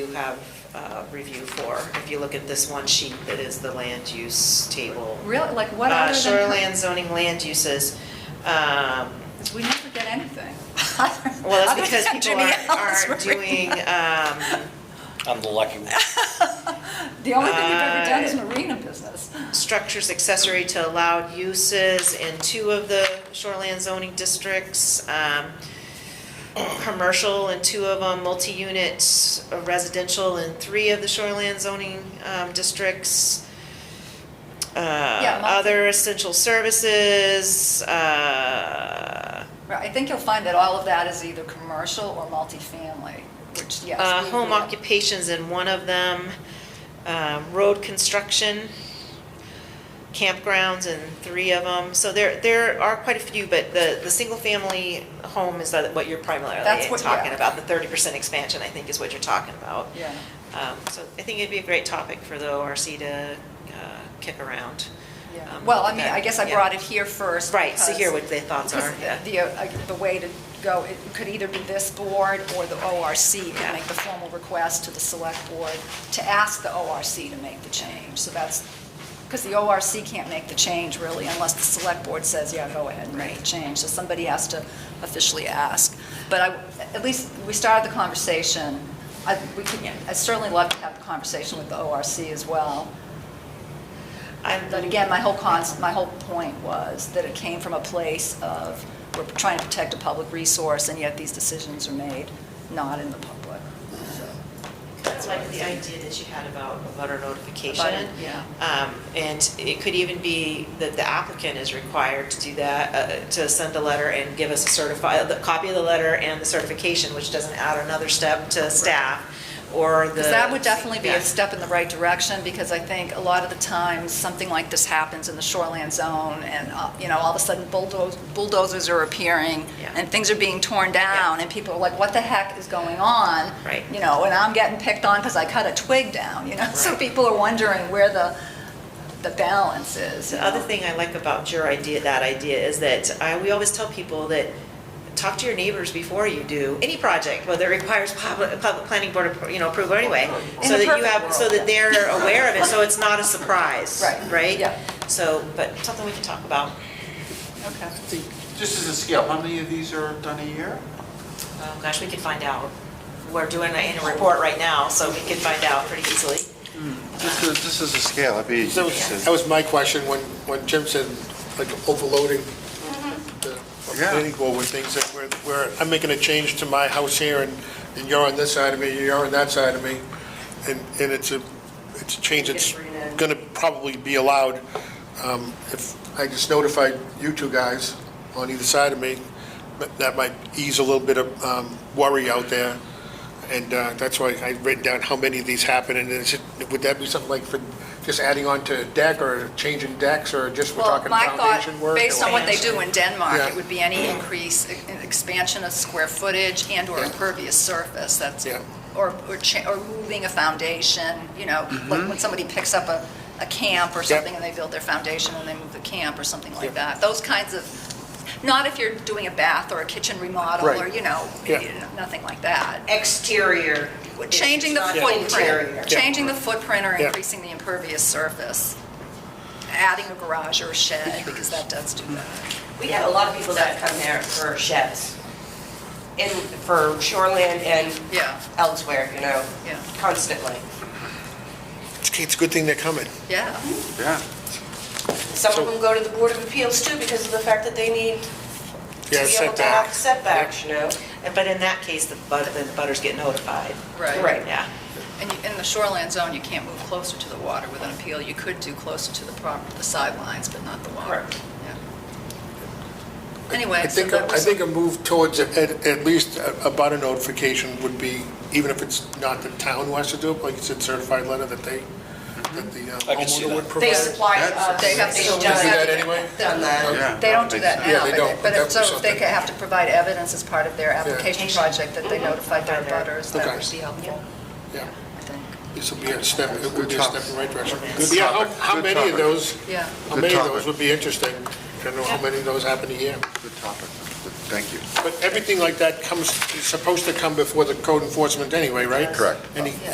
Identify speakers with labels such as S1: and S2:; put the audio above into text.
S1: do have uh, review for. If you look at this one sheet that is the land use table.
S2: Really, like what
S1: Uh,
S2: other than?
S1: Shoreland zoning land uses. um,
S2: We never get anything.
S1: Well, that's
S2: Other
S1: because
S2: than
S1: people
S2: Jimmy
S1: aren't-
S2: Allen's
S1: aren't
S2: review.
S1: doing, um,
S3: I'm the lucky one.
S2: The only thing we've ever done is
S1: uh,
S2: marina business.
S1: structures accessory to allowed uses in two of the shoreland zoning districts, um, commercial in two of them, multi-unit uh, residential in three of the shoreland zoning um, districts. Uh,
S2: Yeah, multi-
S1: Other essential services, uh,
S2: Right, I think you'll find that all of that is either commercial or multifamily, which, yes.
S1: uh,
S2: we-
S1: home
S2: we-
S1: occupations in one of them, uh, road construction, campgrounds in three of them. So there, there are quite a few, but the, the single-family home is that what you're primarily
S2: That's what-
S1: talking
S2: yeah.
S1: about. The thirty percent expansion, I think, is what you're talking about.
S2: Yeah.
S1: Um, So I think it'd be a great topic for the ORC to uh, kick around.
S2: Yeah.
S1: Um,
S2: Well, I mean, I guess I
S1: yeah.
S2: brought it here first.
S1: Right, so
S2: because-
S1: hear what their thoughts are,
S2: because
S1: yeah.
S2: The, uh, the way to go, it could either be this board or the ORC
S1: Yeah.
S2: can make the formal request to the select board to ask the ORC to make the change. So that's, because the ORC can't make the change really unless the select board says, yeah, go ahead and make the change. So somebody has to officially ask. But I, at least we started the conversation. I, we could, I certainly love to have a conversation with the ORC as well.
S1: I'm-
S2: But again, my whole cons, my whole point was that it came from a place of, we're trying to protect a public resource, and yet these decisions are made not in the public. So,
S1: That's like the idea that you had about a butter notification.
S2: Abutter, yeah.
S1: Um, And it could even be that the applicant is required to do that, uh, to send a letter and give us a certified, the copy of the letter and the certification, which doesn't add another step to staff or the.
S2: Because that would definitely be
S1: Yeah.
S2: a step in the right direction, because I think a lot of the times, something like this happens in the shoreland zone, and, uh, you know, all of a sudden bulldoze- bulldozers are appearing,
S1: Yeah.
S2: and things are being torn down, and people are like, what the heck is going on?
S1: Right.
S2: You know, and I'm getting picked on because I cut a twig down, you know? So
S1: Right.
S2: people are wondering where the, the balance is. you
S1: The other
S2: know?
S1: thing I like about your idea, that idea, is that I, we always tell people that talk to your neighbors before you do any project, whether it requires public, public planning board, appro- you know, approval anyway.
S2: In
S1: So
S2: a
S1: that you
S2: perfect
S1: have, so
S2: world,
S1: that they're aware of it, so it's not a surprise,
S2: Right,
S1: right?
S2: yeah.
S1: So, but something we can talk about.
S2: Okay.
S4: Just as a scale, how many of these are done a year?
S1: Oh, gosh, we can find out. We're doing an annual report right now, so we can find out pretty easily.
S4: Just as, just as a scale, I'd be
S5: That was, that was my question, when, when Jim said, like, overloading the
S4: Yeah.
S5: planning board with things that were, where I'm making a change to my house here, and, and you're on this side of me, you're on that side of me, and, and it's a, it's a change that's gonna probably be allowed. Um, If I just notified you two guys on either side of me, that- that might ease a little bit of um, worry out there. And uh, that's why I've written down how many of these happen, and is it, would that be something like for just adding on to deck, or changing decks, or just we're
S2: Well,
S5: talking
S2: my thought,
S5: foundation work?
S2: based on
S5: or-
S2: what they do in Denmark,
S5: Yeah. Mm-hmm.
S2: it would be any increase, e- expansion of square footage and/or
S5: Yeah.
S2: impervious surface, that's,
S5: Yeah.
S2: or, or cha- or moving a foundation, you know, like when somebody picks up a, a camp or
S5: Mm-hmm. Yep.
S2: something and they build their foundation and they move the camp or something like
S5: Yep.
S2: that. Those kinds of, not if you're doing a bath or a kitchen remodel or,
S5: Right.
S2: you know,
S5: Yeah.
S2: nothing like that.
S6: exterior.
S2: Changing the
S6: It's not interior.
S2: footprint, changing the footprint or
S5: Yeah.
S2: increasing the impervious surface, adding a garage or a shed, because that does do that.
S6: We have a lot of people that come there for sheds, and for shoreland and
S2: Yeah,
S6: elsewhere, you know,
S2: Yeah.
S6: constantly.
S5: It's it's a good thing they're coming.
S2: yeah.
S4: Yeah.
S6: Some
S5: So-
S6: of them go to the Board of Appeals too because of the fact that they need to be
S5: Yeah,
S6: able to
S5: setback.
S6: have setbacks, you know?
S1: And- But in that case, the but- the butters get notified.
S6: Right.
S1: Yeah.
S2: And you- in the shoreland zone, you can't move closer to the water with an appeal. You could do closer to the property, the sidelines, but not the water.
S6: Correct.
S2: Yeah.
S5: I
S2: Anyway, so
S5: think,
S2: that
S5: I
S2: was,
S5: think a move towards, at, at least a- about a notification would be, even if it's not the town who has to do it, like you said, certified letter that they, that the uh,
S3: Mm-hmm. I can see
S5: homeowner would
S3: that.
S5: provide.
S6: They supply
S4: That's-
S6: us.
S2: they have to.
S6: They've
S2: show
S5: do
S6: done
S5: that
S6: it.
S5: anyway?
S6: Done that.
S4: Yeah.
S2: They don't do that
S5: Yeah,
S2: now,
S5: they
S2: but
S5: don't,
S2: they- but
S5: but
S2: if,
S5: that
S2: so
S5: would be
S2: if they
S5: something.
S2: have to provide evidence as part of their application project that they
S6: Mm-hmm.
S2: notified their
S1: Notified their-
S2: butters, that
S5: Okay.
S2: would be helpful,
S5: Yeah,
S2: I think.
S5: this would be a step, it would be a step in the right direction.
S4: Good
S5: Yeah,
S4: topic,
S5: how, how
S4: good
S5: many of
S4: topic.
S5: those,
S2: Yeah.
S5: how
S4: Good
S5: many of
S4: topic.
S5: those would be interesting? I don't know how many of those happen a year.
S4: Good topic. Good- Thank you.
S5: But everything like that comes, is supposed to come before the code enforcement anyway, right?
S4: Correct.
S5: Any,